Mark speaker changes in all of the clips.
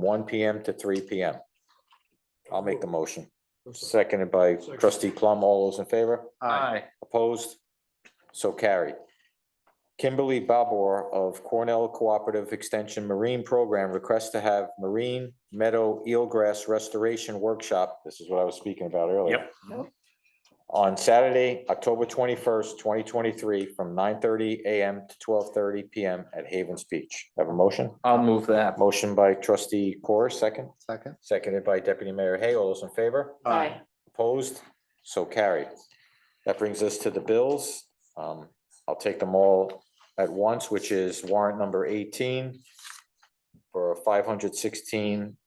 Speaker 1: one PM to three PM. I'll make the motion, seconded by trustee Plum. All those in favor?
Speaker 2: Aye.
Speaker 1: Opposed? So carried. Kimberly Babor of Cornell Cooperative Extension Marine Program requests to have Marine Meadow Eelgrass Restoration Workshop, this is what I was speaking about earlier.
Speaker 3: Yep.
Speaker 1: On Saturday, October twenty-first, twenty twenty-three, from nine thirty AM to twelve thirty PM at Havens Beach. Have a motion?
Speaker 2: I'll move that.
Speaker 1: Motion by trustee Corr, second,
Speaker 3: Second.
Speaker 1: seconded by deputy mayor Hay. All those in favor?
Speaker 3: Aye.
Speaker 1: Opposed? So carried. That brings us to the bills. Um, I'll take them all at once, which is warrant number eighteen for five hundred sixteen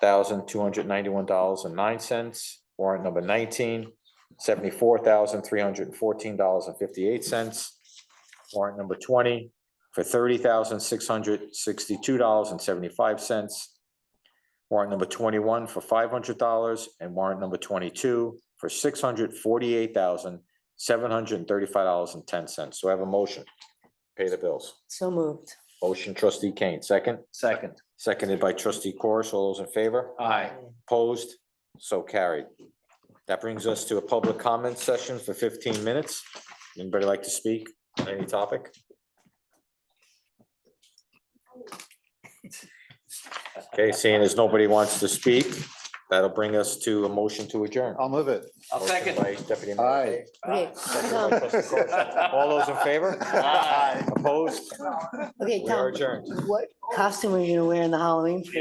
Speaker 1: thousand two hundred ninety-one dollars and nine cents. Warrant number nineteen, seventy-four thousand three hundred and fourteen dollars and fifty-eight cents. Warrant number twenty for thirty thousand six hundred sixty-two dollars and seventy-five cents. Warrant number twenty-one for five hundred dollars and warrant number twenty-two for six hundred forty-eight thousand, seven hundred and thirty-five dollars and ten cents. So I have a motion. Pay the bills.
Speaker 4: So moved.
Speaker 1: Motion trustee Kane, second,
Speaker 2: Second.
Speaker 1: seconded by trustee Corish. All those in favor?
Speaker 2: Aye.
Speaker 1: Opposed? So carried. That brings us to a public comment session for fifteen minutes. Anybody like to speak on any topic? Okay, seeing as nobody wants to speak, that'll bring us to a motion to adjourn.
Speaker 3: I'll move it.
Speaker 2: I'll second.
Speaker 1: Motion by Deputy Mayor
Speaker 3: Aye.
Speaker 1: Hay,
Speaker 4: Okay,
Speaker 1: second by
Speaker 4: Tom,
Speaker 1: trustee Corr. All those in favor?
Speaker 2: Aye.
Speaker 1: Opposed?
Speaker 4: okay,
Speaker 1: We are
Speaker 4: Tom,
Speaker 1: adjourned.
Speaker 4: what costume are you gonna wear in the Halloween?